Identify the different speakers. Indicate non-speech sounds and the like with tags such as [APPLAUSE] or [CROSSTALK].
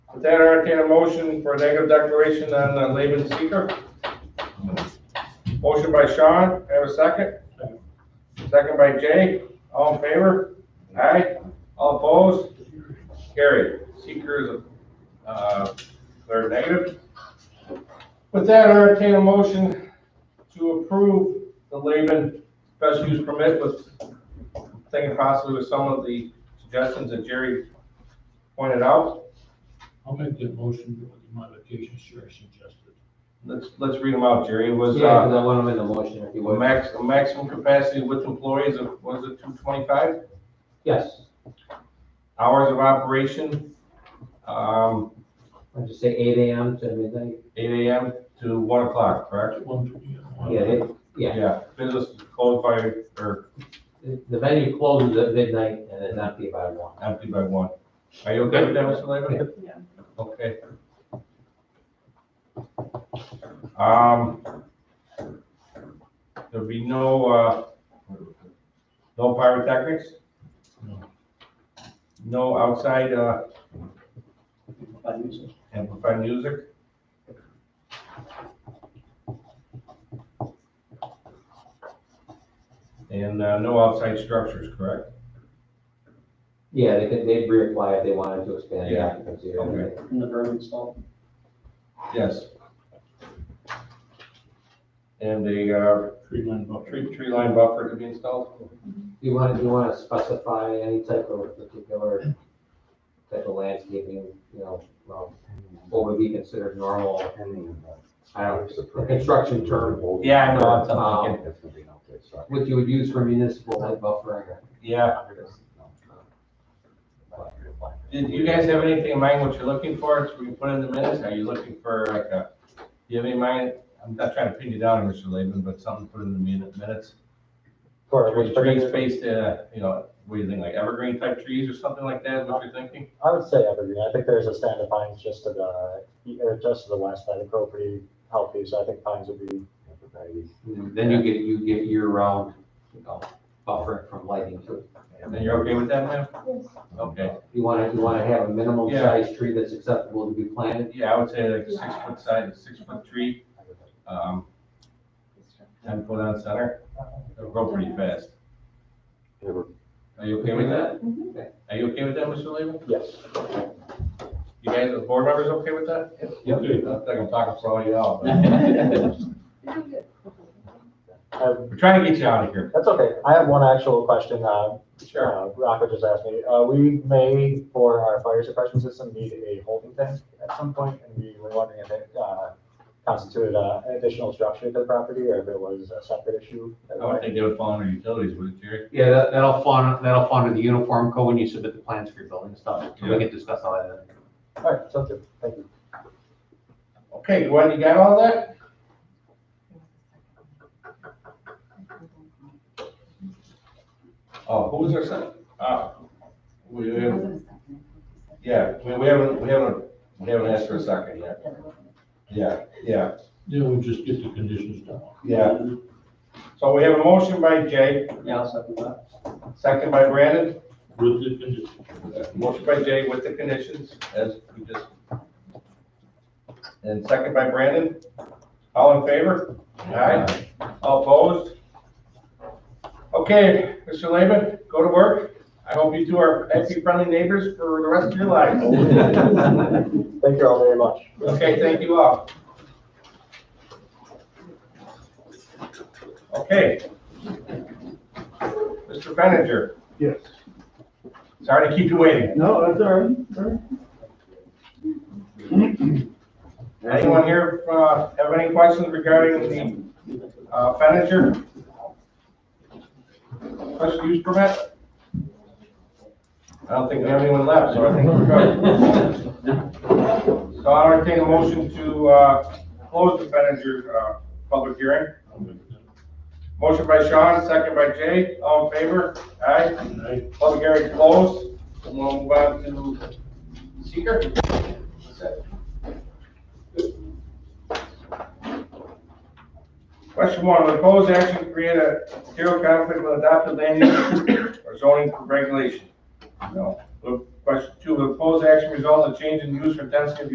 Speaker 1: With that, I entertain a motion for a negative declaration on uh, Laban Seeker. Motion by Sean, I have a second. Second by Jay, all in favor? Aye, all opposed? Carried. Seeker is, uh, declared negative. With that, I entertain a motion to approve the Laban special use permit with, thinking possibly with some of the suggestions that Jerry pointed out.
Speaker 2: I'll make that motion with the modifications Jerry suggested.
Speaker 1: Let's, let's read them out, Jerry. It Was,
Speaker 3: Yeah, because
Speaker 1: uh,
Speaker 3: I want them in the motion if you
Speaker 1: a
Speaker 3: would.
Speaker 1: max, a maximum capacity with employees of, was it two twenty-five?
Speaker 3: Yes,
Speaker 1: Hours of operation, um,
Speaker 3: I'll just say eight AM to midnight.
Speaker 1: eight AM to one o'clock, correct?
Speaker 2: One, two, yeah, one.
Speaker 3: Yeah, it- yeah,
Speaker 1: business closed by, or
Speaker 3: the venue closes at midnight and it's empty by one.
Speaker 1: empty by one. Are you okay with that, Mr. Lehman?
Speaker 4: Yeah.
Speaker 1: Okay. Um, there'll be no, uh, no pyrotechnics?
Speaker 2: No.
Speaker 1: No outside, uh, amplified music? And, uh, no outside structures, correct?
Speaker 3: Yeah, they could, they'd reapply if they wanted to expand the
Speaker 1: Yeah,
Speaker 3: occupancy. or
Speaker 1: okay.
Speaker 3: anything.
Speaker 5: in the burn install.
Speaker 1: Yes. And a, uh,
Speaker 2: Tree line buffer.
Speaker 1: tree, tree line buffer to be installed?
Speaker 3: Do you want, do you want to specify any type of particular type of landscaping, you know, well, what would be considered normal? I don't, the construction term,
Speaker 1: Yeah, I know, um,
Speaker 3: I'm thinking. what you would use for municipal like buffering or
Speaker 1: Yeah. Did you guys have anything in mind what you're looking for, so we can put in the minutes? Are you looking for like a, do you have any mind? I'm not trying to pin you down, Mr. Laban, but something to put in the minute- minutes.
Speaker 6: For
Speaker 1: Tree
Speaker 6: which
Speaker 1: tree
Speaker 6: particular-
Speaker 1: space, uh, you know, what do you think, like evergreen type trees or something like that, is what you're thinking?
Speaker 6: I would say evergreen. I think there's a stand of pines just to the, or just to the west that are pretty healthy, so I think pines would be.
Speaker 3: then you get, you get year-round, you know, buffering from lighting too.
Speaker 1: And then you're okay with that, ma'am?
Speaker 4: Yes.
Speaker 1: Okay,
Speaker 3: You want to, you want to have a minimum
Speaker 1: Yeah.
Speaker 3: size tree that's acceptable to be planted.
Speaker 1: yeah, I would say like a six foot side, a six foot tree, um, ten foot on center, it'll grow pretty fast. Are you okay with that?
Speaker 4: Mhm.
Speaker 1: Are you okay with that, Mr. Lehman?
Speaker 6: Yes.
Speaker 1: You guys, the board members okay with that?
Speaker 3: Yep.
Speaker 1: Dude, I think I'm talking for all y'all. [LAUGHS]
Speaker 4: Very good.
Speaker 6: Um,
Speaker 1: We're trying to get you out of here.
Speaker 6: That's okay. I have one actual question. Uh, uh, Rocco just asked me, uh, we may for our fire suppression system need a holding tank at some point, and we were wondering if it, uh, constituted uh, an additional structure to the property or if it was a separate issue.
Speaker 1: I would think they would fall under utilities, would it, Jerry?
Speaker 7: Yeah, that, that'll fall, under- that'll fall under the uniform code when you submit the plans for your building stuff, so
Speaker 1: Yeah.
Speaker 7: we can discuss all that. then.
Speaker 6: All right, sounds good. Thank you.
Speaker 1: Okay, Gwen, you got all that? Oh, who was our second? Ah, we, we- yeah, we, we haven't, we haven't, we haven't asked for a second yet. Yeah, yeah,
Speaker 2: Yeah, we just get the conditions down.
Speaker 1: yeah. So we have a motion by Jay,
Speaker 5: Yeah, I'll second that.
Speaker 1: second by Brandon.
Speaker 2: With the conditions.
Speaker 1: [LAUGHS] Motion by Jay with the conditions, as we just. And second by Brandon. All in favor? Aye. All opposed? Okay, Mr. Lehman, go to work. I hope you two are pet-friendly neighbors for the rest of your lives.
Speaker 6: Thank you all very much.
Speaker 1: Okay, thank you all. Okay. Mr. Benninger,
Speaker 8: Yes.
Speaker 1: sorry to keep you waiting.
Speaker 8: No, that's all right, all right.
Speaker 1: Anyone here uh, have any questions regarding the uh, furniture? Special use permit? I don't think we have anyone left, so I think we're good. So I'll entertain a motion to uh, close the furniture uh, public hearing.
Speaker 2: I'll make that.
Speaker 1: Motion by Sean, second by Jay, all in favor? Aye.
Speaker 2: And I-
Speaker 1: Public hearing closed. And We'll move on to seeker. Question one, would proposed action to create a [COUGHS] material conflict with adopted land use or zoning regulation? No. Would Question two, will proposed action result in a change in use or density of